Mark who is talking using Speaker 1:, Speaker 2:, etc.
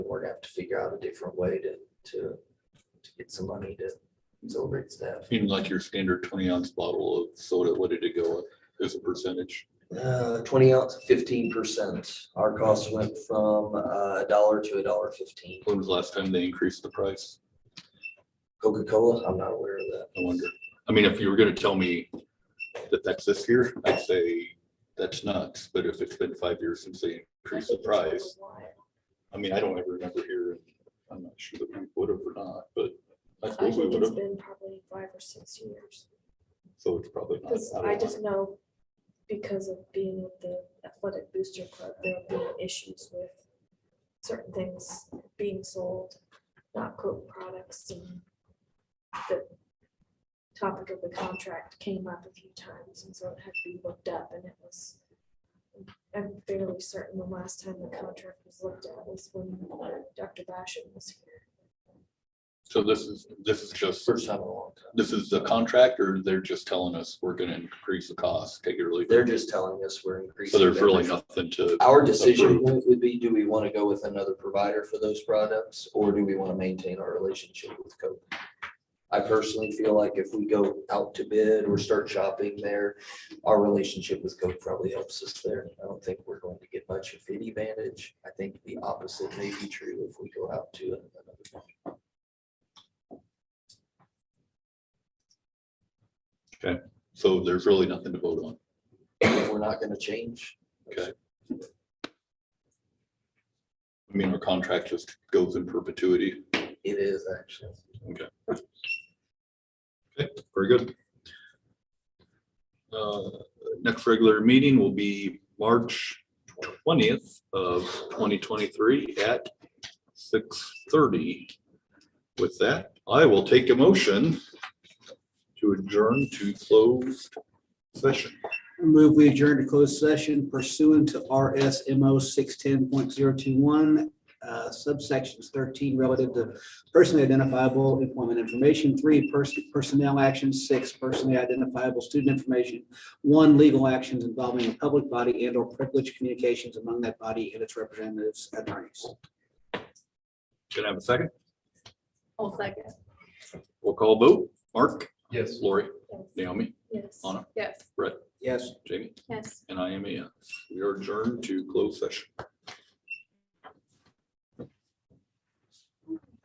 Speaker 1: We're gonna have to figure out a different way to, to, to get some money to celebrate staff.
Speaker 2: Even like your standard twenty ounce bottle of soda, what did it go up as a percentage?
Speaker 1: Uh, twenty ounce, fifteen percent. Our cost went from uh, a dollar to a dollar fifteen.
Speaker 2: When was the last time they increased the price?
Speaker 1: Coca-Cola, I'm not aware of that.
Speaker 2: I wonder. I mean, if you were gonna tell me that that's this year, I'd say that's nuts, but if it's been five years since they increased the price, I mean, I don't ever remember here. I'm not sure that we would have or not, but I
Speaker 3: I
Speaker 2: suppose we
Speaker 3: think
Speaker 2: would
Speaker 3: it's
Speaker 2: have,
Speaker 3: been probably five or six years,
Speaker 2: so it's probably not.
Speaker 3: because
Speaker 2: don't
Speaker 3: I
Speaker 2: know.
Speaker 3: just know because of being with the athletic booster club, there have been issues with certain things being sold, not Coke products and the topic of the contract came up a few times, and so it had to be looked up, and it was I'm fairly certain the last time the contract was looked at was when Dr. Basham was here.
Speaker 2: So this is, this is just,
Speaker 1: First time in a long time.
Speaker 2: this is the contract or they're just telling us we're gonna increase the cost, take it or leave it?
Speaker 1: They're just telling us we're increasing.
Speaker 2: So there's really
Speaker 1: everything.
Speaker 2: nothing to,
Speaker 1: Our decision
Speaker 2: approved.
Speaker 1: point would be, do we want to go with another provider for those products, or do we want to maintain our relationship with Coke? I personally feel like if we go out to bid or start shopping there, our relationship with Coke probably helps us there. I don't think we're going to get much of any advantage. I think the opposite may be true if we go out to another. one.
Speaker 2: so there's really nothing to vote on.
Speaker 1: If We're not going to change.
Speaker 2: Okay. I mean, our contract just goes in perpetuity.
Speaker 1: It is actually.
Speaker 2: Very good. Uh, Next regular meeting will be March twentieth of twenty twenty-three at six thirty. With that, I will take a motion to adjourn to closed session.
Speaker 4: Move we adjourn to closed session pursuant to RSMO six ten point zero two one, uh, subsections thirteen relative to personally identifiable employment information, three, person, personnel actions, six, personally identifiable student information, one, legal actions involving a public body and or privileged communications among that body and its representatives attorneys.
Speaker 2: Can I have a second?
Speaker 3: I'll second.
Speaker 2: We'll call vote. Mark?
Speaker 1: Yes.
Speaker 2: Lori? Naomi?
Speaker 3: Yes.
Speaker 2: Anna?
Speaker 3: Yes.
Speaker 2: Brett?
Speaker 4: Yes.
Speaker 2: Jamie?
Speaker 3: Yes.
Speaker 2: And I am a, yes. we are adjourned to closed session.